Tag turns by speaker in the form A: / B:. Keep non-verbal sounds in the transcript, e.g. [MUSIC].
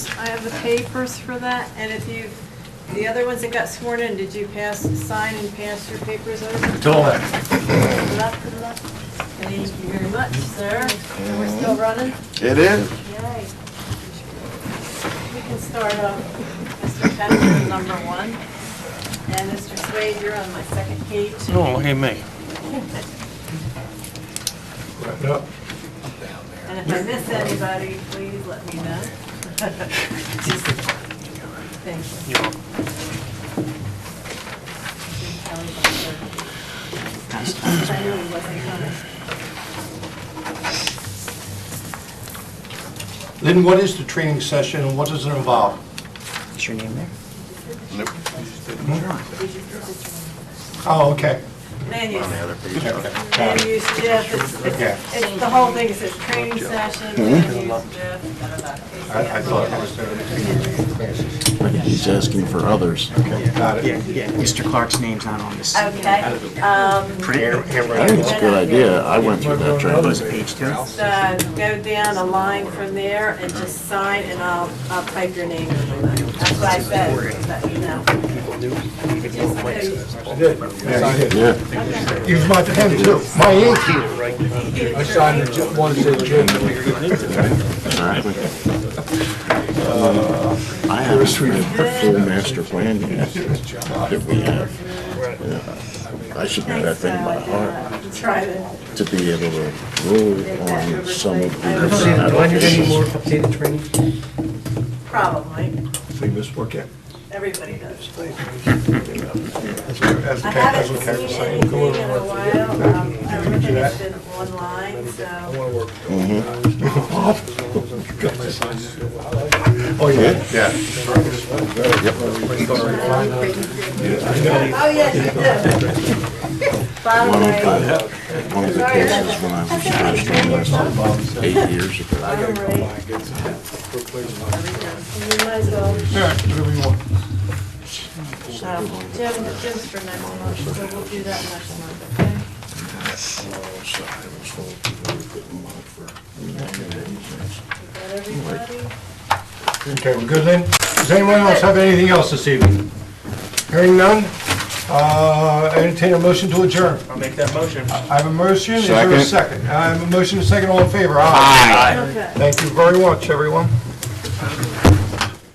A: I have the papers for that, and if you, the other ones that got sworn in, did you pass, sign and pass your papers over?
B: Till then.
A: Good luck, good luck. Thank you very much, sir. And we're still running?
C: It is.
A: Yay. We can start off, Mr. Pender, number one, and Mr. Swade, you're on my second page.
D: No,
A: [LAUGHS]
D: hey, me.
B: Wrap it up.
A: And if I miss anybody, please let me know. [LAUGHS] Thank you.
D: You're welcome.
A: I knew he wasn't coming.
B: Lynn, what is the training session and what does it involve?
E: Is your name there?
B: Hmm? Oh, okay.
A: Land use, land
B: Okay.
A: use, Jeff, it's,
B: Okay. Mm-hmm.
A: it's- it's the whole thing, it says training session, land use, Jeff, da, da, da.
B: I I thought it was there.
C: He's asking for others.
B: Got
E: Yeah,
B: it.
E: yeah, Mr. Clark's name's not on this.
A: Okay, um,
E: Print,
C: I think it's a good idea. I went through that
E: there's a
C: training.
E: page two.
A: uh, go down a line from there and just sign, and I'll, I'll type your name. in. That's what I said, but, you know. Just uh, so
C: Yeah.
B: Use my pen too. My ink here.
A: you-
F: I signed the ju- one that said Jim.
C: Exactly. Uh, Um, I haven't read the full master plan yet that we have. Yeah. I should know that thing by heart
A: uh, Try to,
C: to be able to rule on some of these
F: Do I need any more
C: applications.
F: updated training?
A: probably,
B: So you missed work yet?
A: everybody does.
B: As we- as
A: I
B: the cat as the
A: haven't
B: cat was
A: seen
B: saying.
A: anything
B: go
A: in a
B: over.
A: while, um, everything's
B: that.
A: been online,
F: I
A: so.
F: want to work.
B: Oh, yeah. Yeah.
A: Oh, yes, you did. [LAUGHS] Bottom
C: One of
A: right,
C: the, one of the cases when I was first on this eight years ago,
A: bottom right. You might as well,
B: Yeah, whatever you want.
A: um, Jim, Jim's for next month, so we'll do that next month, okay?
C: so I was told to go put them on for
A: Is that everybody?
B: Okay, we're good then? Does anyone else have anything else this evening? Hearing none, uh, entertain a motion to adjourn.
D: I'll make that motion.
B: I have a motion, is there a
C: Second.
B: second? I have a motion, a second, all in favor? Aye.
A: Okay.
B: Thank you very much, everyone.